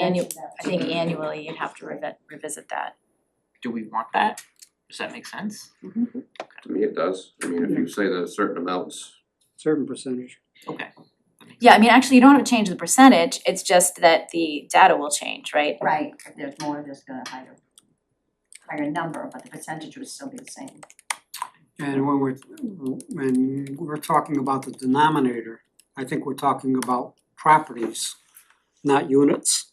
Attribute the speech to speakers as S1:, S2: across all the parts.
S1: annual, I think annually you'd have to revi- revisit that.
S2: Do we want that? Does that make sense?
S3: To me, it does. I mean, if you say that a certain amounts,
S4: certain percentage.
S2: Okay.
S1: Yeah, I mean, actually, you don't have to change the percentage, it's just that the data will change, right?
S5: Right, if there's more, there's gonna higher, higher number, but the percentage would still be the same.
S4: And when we're, when we're talking about the denominator, I think we're talking about properties, not units.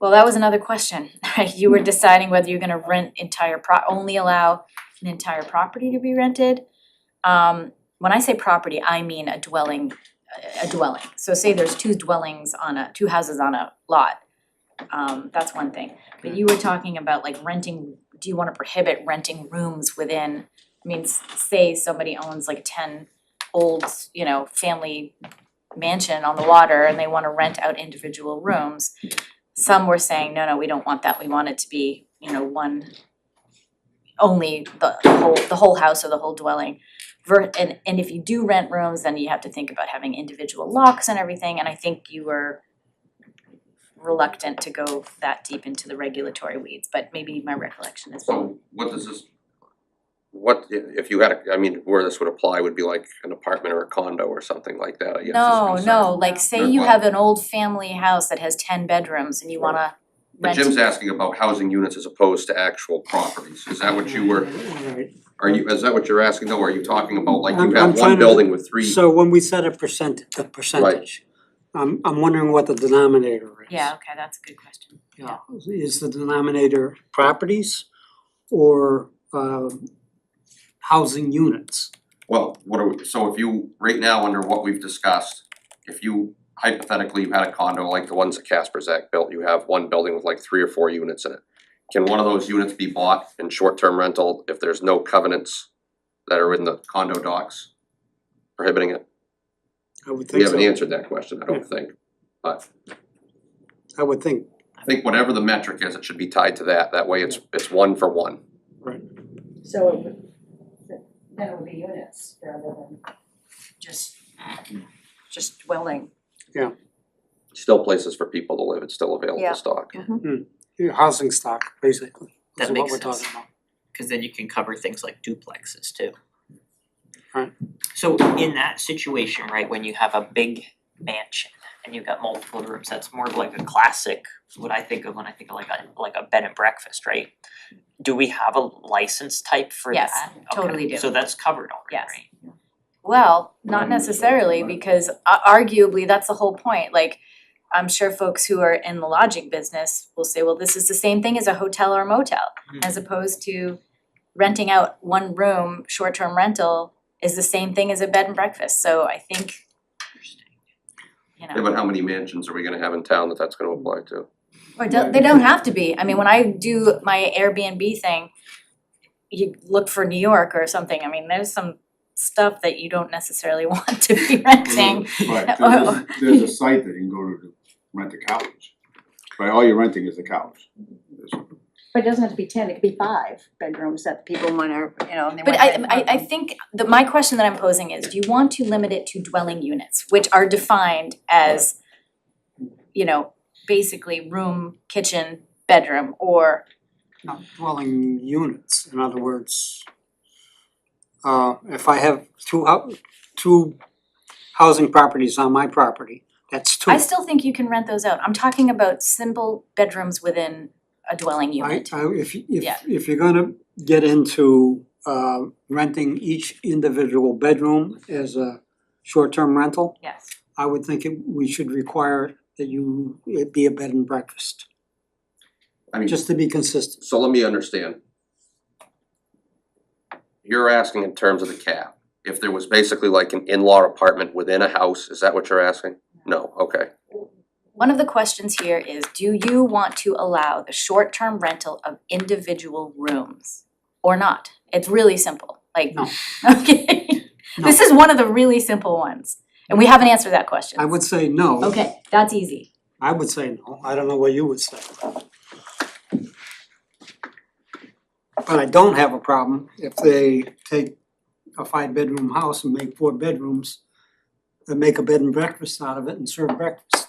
S1: Well, that was another question, right? You were deciding whether you're gonna rent entire pro, only allow an entire property to be rented. Um, when I say property, I mean a dwelling, a dwelling. So say there's two dwellings on a, two houses on a lot. Um, that's one thing. But you were talking about like renting, do you wanna prohibit renting rooms within? I mean, s- say somebody owns like ten old, you know, family mansion on the water and they wanna rent out individual rooms some were saying, no, no, we don't want that, we want it to be, you know, one only the the whole the whole house or the whole dwelling. Ver- and and if you do rent rooms, then you have to think about having individual locks and everything, and I think you were reluctant to go that deep into the regulatory weeds, but maybe my recollection is wrong.
S3: so what does this? What, i- if you had, a I mean, where this would apply would be like an apartment or a condo or something like that, I guess is
S1: No,
S3: concerned.
S1: no, like say
S3: Or
S1: you
S3: what?
S1: have an old family house that has ten bedrooms and you wanna
S3: But
S1: rent
S3: Jim's asking about housing units as opposed to actual properties. Is that what you were,
S4: Alright,
S3: are you, is that what you're asking though? Are you talking about like you
S4: I'm- I'm
S3: have
S4: trying
S3: one
S4: to-
S3: building with three?
S4: so when we said a percent, a percentage, I'm I'm wondering what the denominator is.
S1: Yeah, okay, that's a good question.
S4: Yeah, is the denominator properties or um housing units?
S3: Well, what are we, so if you, right now, under what we've discussed, if you hypothetically you had a condo like the ones that Casper Zach built, you have one building with like three or four units in it. Can one of those units be bought in short-term rental if there's no covenants that are in the condo docs prohibiting it?
S4: I would
S3: We
S4: think so.
S3: haven't answered that question, I don't think, but
S4: I would think,
S3: I think whatever the metric is, it should be tied to that, that way it's it's one for one.
S5: So it would. Then it would be units rather than just, just dwelling.
S3: Still places for people to live, it's still
S5: Yeah.
S3: available stock.
S4: yeah, housing stock, basically,
S2: That
S4: is what
S2: makes
S4: we're
S2: sense.
S4: talking about.
S2: Cause then you can cover things like duplexes too.
S4: Right.
S2: So in that situation, right, when you have a big mansion and you've got multiple rooms, that's more of like a classic, what I think of when I think of like a like a bed and breakfast, right? Do we have a license type for that?
S1: Yes, totally
S2: Okay,
S1: do.
S2: So that's covered already,
S1: Yes.
S2: right?
S1: Well, not necessarily, because a- arguably, that's the whole point, like, I'm sure folks who are in the lodging business will say, well, this is the same thing as a hotel or motel.
S3: Mm-hmm.
S2: Mhm.
S1: As opposed to renting out one room, short-term rental is the same thing as a bed and breakfast, so I think,
S2: Interesting.
S1: you
S3: Yeah,
S1: know.
S3: but how many mansions are we gonna have in town that that's gonna apply to?
S1: Or don't, they don't have to be, I mean, when I do my Airbnb thing, you look for New York or something, I mean, there's some stuff that you don't necessarily want to be renting.
S6: Right, there's, a- there's a site that you can go to to rent a couch, but all you're renting is the couch. There's-
S5: But it doesn't have to be ten, it could be five bedrooms that people wanna, you know, and they
S1: But
S5: wanna
S1: I I
S5: have
S1: I
S5: apartment.
S1: think the my question that I'm posing is, do you want to limit it to dwelling units, which are defined as you know, basically room, kitchen, bedroom, or
S4: not dwelling units, in other words. Uh, if I have two hou- two housing properties on my property, that's two.
S1: I still think you can rent those out. I'm talking about simple bedrooms within a dwelling
S4: I
S1: unit.
S4: I if you- if
S1: Yeah.
S4: if you're gonna get into uh renting each individual bedroom as a short-term rental,
S1: Yes.
S4: I would think it we should require that you it be a bed and breakfast,
S3: I mean,
S4: just to be consistent.
S3: so let me understand. You're asking in terms of the cap, if there was basically like an in-law apartment within a house, is that what you're asking? No, okay,
S1: One of the questions here is, do you want to allow the short-term rental of individual rooms or not? It's really simple, like,
S4: No.
S1: okay. This is one of the really simple ones, and we haven't answered that question.
S4: I would say no.
S1: Okay, that's easy.
S4: I would say no, I don't know what you would say. But I don't have a problem if they take a five bedroom house and make four bedrooms and make a bed and breakfast out of it and serve breakfast.